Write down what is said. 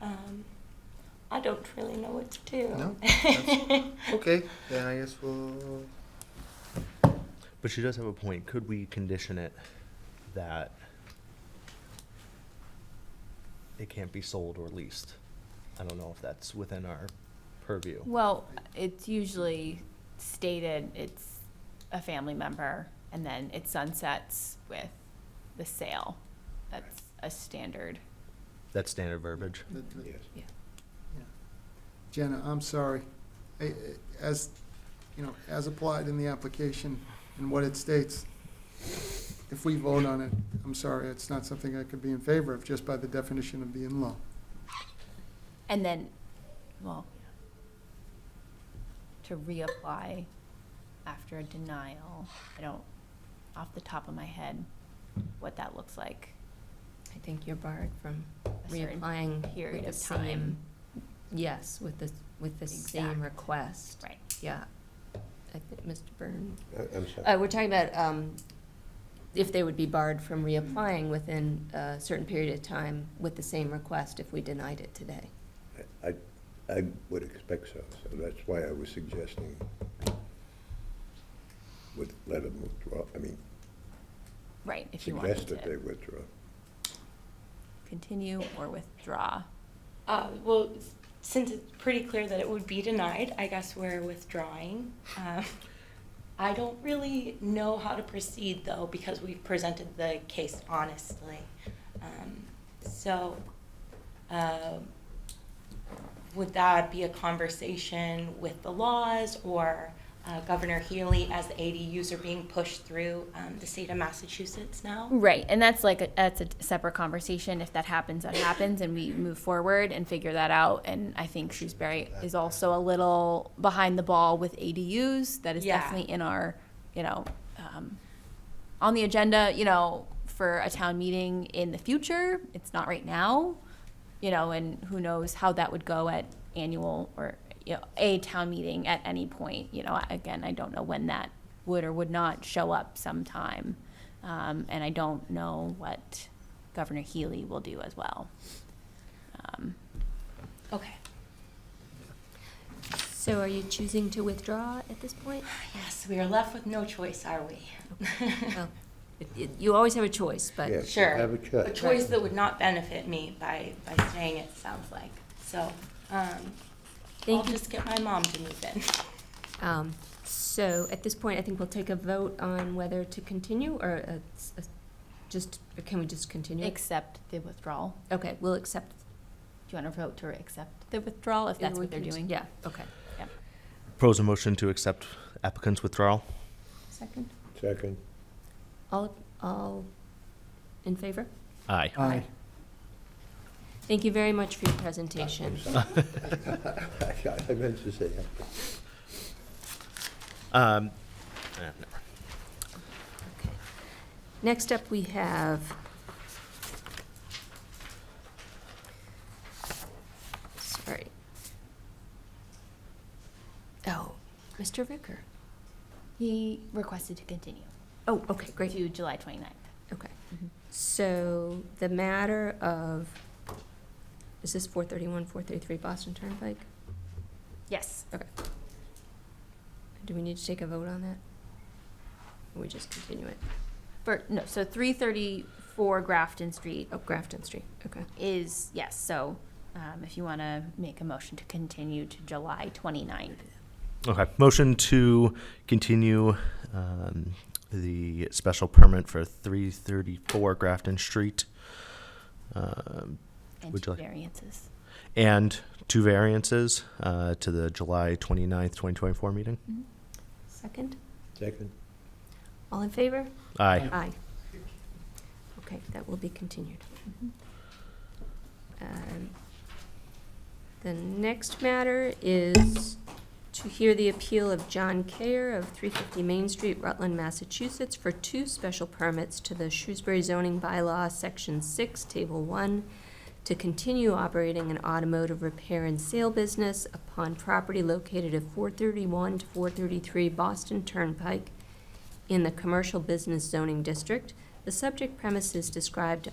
Um, I don't really know what to do. No, that's- Okay, then I guess we'll, But she does have a point. Could we condition it that it can't be sold or leased? I don't know if that's within our purview. Well, it's usually stated it's a family member, and then it sunsets with the sale. That's a standard. That's standard verbiage. That- that- Yeah. Yeah. Jenna, I'm sorry. I- I- As, you know, as applied in the application and what it states, if we vote on it, I'm sorry, it's not something I could be in favor of just by the definition of the in-law. And then, well, to reapply after a denial, I don't, off the top of my head, what that looks like. I think you're barred from A certain reapplying period with the of time. same, yes, with the, with the Exact. same request. Right. Yeah. I think Mr. Byrne, I'm sorry. uh, we're talking about, um, if they would be barred from reapplying within a certain period of time with the same request if we denied it today. I, I would expect so, so that's why I was suggesting would let them withdraw, I mean, Right, if you wanted suggest that they to withdraw. continue or withdraw. Uh, well, s- since it's pretty clear that it would be denied, I guess we're withdrawing. Um, I don't really know how to proceed though, because we've presented the case honestly. Um, so, um would that be a conversation with the laws or uh, Governor Healy as the ADUs are being pushed through um, the state of Massachusetts now? Right, and that's like a, that's a separate conversation. If that happens, that happens, and we move forward and figure that out. And I think Shrewsbury is also a little behind the ball with ADUs. That is Yeah. definitely in our, you know, um, on the agenda. You know, for a town meeting in the future. It's not right now. You know, and who knows how that would go at annual or you know, a town meeting at any point. You know, again, I don't know when that would or would not show up sometime. Um, and I don't know what Governor Healy will do as well. Um, Okay. So are you choosing to withdraw at this point? Yes, we are left with no choice, are we? Well, it- it- You always have a choice, but. Yes, Sure. Have a A chat. choice that would not benefit me by, by staying, it sounds like. So, um, I'll Thank you. just get my mom to move in. Um, So at this point, I think we'll take a vote on whether to continue or uh, s- uh, just, or can Oh. we just continue? Accept the withdrawal. Okay, we'll accept. Do you want to vote to accept the withdrawal if that's we what they're can- doing? Yeah, okay. Pros a motion to accept applicant's withdrawal? Second. Second, All, all in favor? Aye. Aye. Thank you very much for your presentation. I meant to say, Um, eh, no. Next up, we have sorry. Oh, Mr. Ricker. He requested to continue Oh, okay, great. Mm-hmm. to July 29th. Okay. Mhm. So the matter of, is this 431, 433 Boston Turnpike? Yes. Do we need to take a vote on that? Or we just continue it? For, no, so 334 Grafton Street Oh, Grafton Street, okay. is, yes, so um, if you want to make a motion to continue to July 29th. Okay, motion to continue um, the special permit for 334 Grafton Street um, and Would you like- Variances. and two variances uh, to the July 29th, 2024 meeting. Second? second, All in favor? Aye. Aye. Okay, that will be continued. Um, The next matter is to hear the appeal of John Kayer of 350 Main Street, Rutland, Massachusetts, for two special permits to the Shrewsbury zoning bylaw, Section 6, Table 1, to continue operating an automotive repair and sale business upon property located at 431 to 433 Boston Turnpike in the commercial business zoning district. The subject premises described